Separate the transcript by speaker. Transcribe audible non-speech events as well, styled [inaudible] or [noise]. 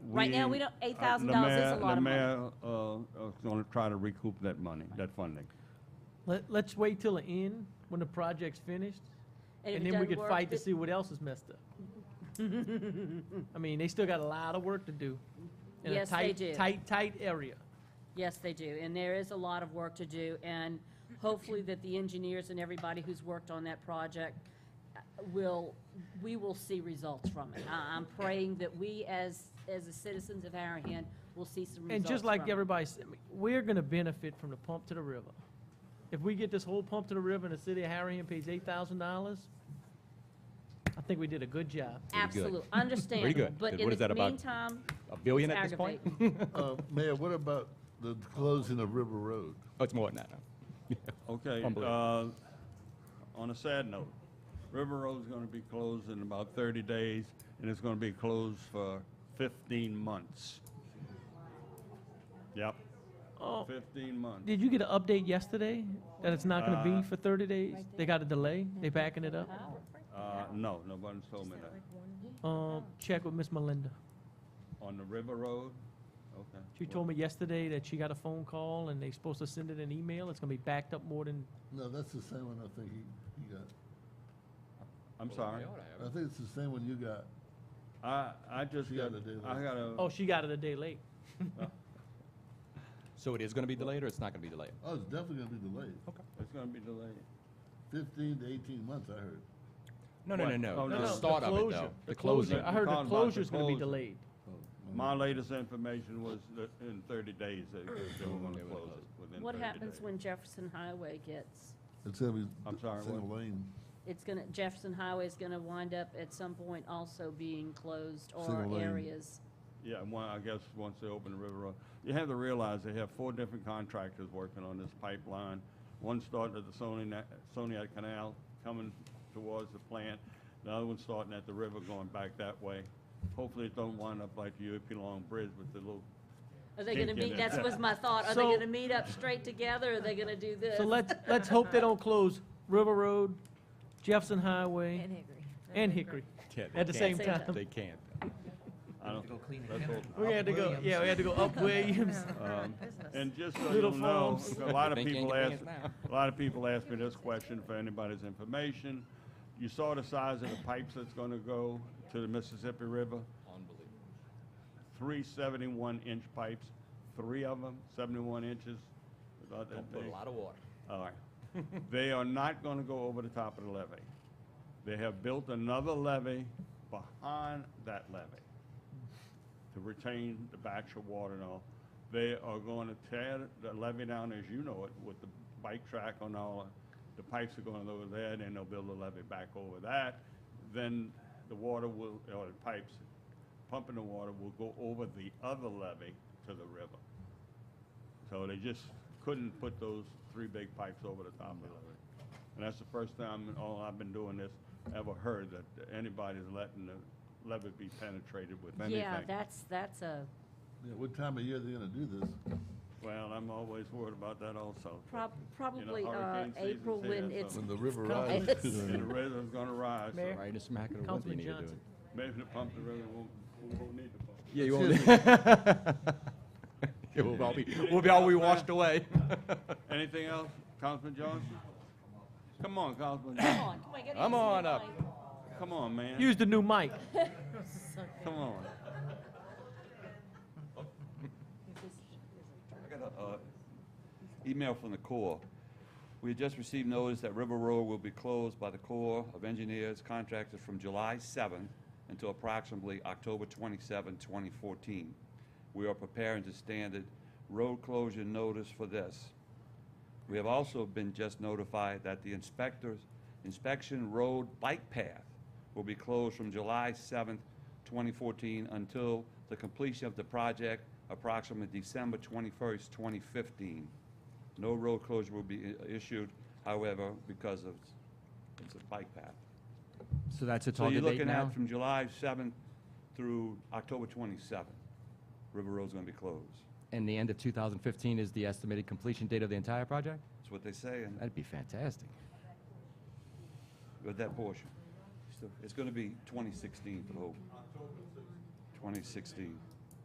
Speaker 1: Right now, we don't-
Speaker 2: uh,
Speaker 1: $8,000 is a
Speaker 2: Lemaire-
Speaker 1: lot of money.
Speaker 2: Lemaire, uh, is gonna try to recoup that money, that funding.
Speaker 3: Let, let's wait till the end, when the project's finished,
Speaker 1: if
Speaker 3: and
Speaker 1: it
Speaker 3: then we
Speaker 1: doesn't
Speaker 3: could
Speaker 1: work,
Speaker 3: fight to
Speaker 1: it-
Speaker 3: see what else is messed up.
Speaker 1: [laughs]
Speaker 3: I mean, they still got a lot of work to do. in a
Speaker 1: Yes, they
Speaker 3: tight-
Speaker 1: do.
Speaker 3: Tight, tight area.
Speaker 1: Yes, they do, and there is a lot of work to do, and hopefully that the engineers and everybody who's worked on that project uh, will, we will see results from it. I- I'm praying that we, as, as the citizens of Harahan, will see some results
Speaker 3: And just like
Speaker 1: from it.
Speaker 3: everybody said, I mean, we're gonna benefit from the pump to the river. If we get this whole pump to the river and the city of Harahan pays eight thousand dollars, I think we did a good job.
Speaker 4: Pretty good.
Speaker 1: Absolutely, understandable,
Speaker 4: good.
Speaker 1: but
Speaker 4: What
Speaker 1: in
Speaker 4: is that
Speaker 1: the
Speaker 4: about?
Speaker 1: meantime,
Speaker 4: A billion
Speaker 1: It's
Speaker 4: at this point?
Speaker 5: Uh, Mayor, what about the closing of River Road?
Speaker 4: Oh, it's more than that. now.
Speaker 2: Okay, uh,
Speaker 4: Unbelievable.
Speaker 2: on a sad note, River Road's gonna be closed in about thirty days, and it's gonna be closed for fifteen months. Yep,
Speaker 3: Oh,
Speaker 2: fifteen months.
Speaker 3: did you get an update yesterday that it's not gonna
Speaker 2: Uh,
Speaker 3: be for thirty days? They got a delay? They backing it up?
Speaker 2: Uh, no, nobody's told me that.
Speaker 3: Um, check with Miss Melinda.
Speaker 2: On the River Road? Okay.
Speaker 3: She told me yesterday that she got a phone call and they supposed to send it an email. It's gonna be backed up more than,
Speaker 5: No, that's the same one I think you, you got.
Speaker 2: I'm sorry.
Speaker 5: I think it's the same one you got.
Speaker 2: I, I just
Speaker 5: You
Speaker 2: got,
Speaker 5: gotta do
Speaker 2: I
Speaker 5: that.
Speaker 2: got
Speaker 3: oh,
Speaker 2: a,
Speaker 3: she got it a day late.
Speaker 4: So it is going to be delayed or it's not going to be delayed?
Speaker 5: Oh, it's definitely gonna be delayed.
Speaker 2: it's gonna be delayed.
Speaker 5: Fifteen to eighteen months, I heard.
Speaker 4: No, no, no,
Speaker 2: What? Oh,
Speaker 4: no.
Speaker 2: no,
Speaker 4: The
Speaker 2: no, the
Speaker 4: start of it,
Speaker 3: closure.
Speaker 4: though. The closure.
Speaker 3: I heard
Speaker 2: You're talking
Speaker 3: the
Speaker 2: about the
Speaker 3: closure's gonna be
Speaker 2: closure.
Speaker 3: delayed.
Speaker 2: My latest information was that in thirty days, [clears throat] that they were gonna close it within
Speaker 1: what
Speaker 2: 30
Speaker 1: happens
Speaker 2: days.
Speaker 1: when Jefferson Highway gets,
Speaker 5: It's gonna be
Speaker 2: I'm sorry,
Speaker 5: single
Speaker 2: what?
Speaker 5: lane,
Speaker 1: it's gonna, Jefferson Highway is gonna wind up at some point also being closed or
Speaker 5: Single lane.
Speaker 1: areas.
Speaker 2: Yeah, and one, I guess, once they open the river road, you have to realize they have four different contractors working on this pipeline. One started at the Soniac, Soniac Canal coming towards the plant, the other one starting at the river going back that way. Hopefully it don't wind up like the UP Long Bridge with the little,
Speaker 1: Are they gonna
Speaker 2: Thinking
Speaker 1: meet,
Speaker 2: that-
Speaker 1: that was my thought, are they
Speaker 3: So-
Speaker 1: gonna meet up straight together, or are they gonna do this?
Speaker 3: So let's, let's hope they don't close River Road, Jefferson Highway,
Speaker 6: And Hickory.
Speaker 3: and Hickory.
Speaker 4: Yeah, they
Speaker 3: At the
Speaker 4: can't.
Speaker 3: same
Speaker 1: Same time.
Speaker 4: They can't.
Speaker 2: I [laughs] don't, let's hope-
Speaker 3: We had to go, yeah, we had to go up Williams.
Speaker 2: um, And just so
Speaker 3: Little
Speaker 2: you know,
Speaker 3: farms.
Speaker 2: a lot of
Speaker 4: They can't
Speaker 2: people
Speaker 4: get
Speaker 2: ask,
Speaker 4: pants
Speaker 2: a
Speaker 4: now.
Speaker 2: lot of people ask me this question for anybody's information. You saw the size of the pipes that's gonna go to the Mississippi River?
Speaker 4: Unbelievable.
Speaker 2: three 71 inch pipes, three of them, 71 inches. about that
Speaker 4: Don't put a
Speaker 2: big.
Speaker 4: lot of water.
Speaker 2: All right. [laughs] They are not going to go over the top of the levee. They have built another levee behind that levee to retain the backs of water and all. They are going to tear the levee down as you know it with the bike track and all. The pipes are going over there, then they'll build a levee back over that. Then the water will, or the pipes pumping the water will go over the other levee to the river. So they just couldn't put those three big pipes over the top of it. And that's the first time in all I've been doing this, ever heard that anybody's letting the levee be penetrated with anything.
Speaker 1: Yeah, that's, that's a,
Speaker 5: yeah, what time of year they gonna do this?
Speaker 2: Well, I'm always worried about that also.
Speaker 1: prob- probably, uh,
Speaker 2: hurricane season's
Speaker 1: April when
Speaker 2: here,
Speaker 1: it's,
Speaker 2: so-
Speaker 5: When the
Speaker 1: [laughs]
Speaker 5: river
Speaker 1: Come-
Speaker 5: rises.
Speaker 2: And the river's gonna rise, so
Speaker 3: Mayor?
Speaker 4: Right in the smack of the winter, you
Speaker 3: Councilman
Speaker 4: need to do it.
Speaker 3: Johnson.
Speaker 2: maybe the pump, the river won't, we won't need the pump.
Speaker 4: Yeah, you
Speaker 5: Excuse
Speaker 4: won't. It will all be, [laughs] we'll be all we washed away.
Speaker 2: Anything else, Councilman Johnson? Come on, Councilman,
Speaker 1: come
Speaker 2: Johnson.
Speaker 1: on, come on, you gotta use
Speaker 4: Come
Speaker 1: the
Speaker 4: on up.
Speaker 1: line.
Speaker 2: come on, man,
Speaker 3: Use the new mic.
Speaker 2: come on.
Speaker 7: I got a uh, email from the Corps. We had just received notice that River Road will be closed by the Corps of Engineers contractors from July 7th until approximately October 27, 2014. We are preparing to standard road closure notice for this. We have also been just notified that the inspectors, inspection road bike path will be closed from July 7th, 2014 until the completion of the project approximately December 21st, 2015. No road closure will be i- issued, however, because of, it's a bike path.
Speaker 4: So that's a
Speaker 7: So you're looking at from July 7th through October 27th, River Road's gonna be closed.
Speaker 4: And the end of 2015 is the estimated completion date of the entire project?
Speaker 7: That's what they say in
Speaker 4: That'd be fantastic.
Speaker 7: with that portion. So It's gonna be 2016 for the whole. 2016.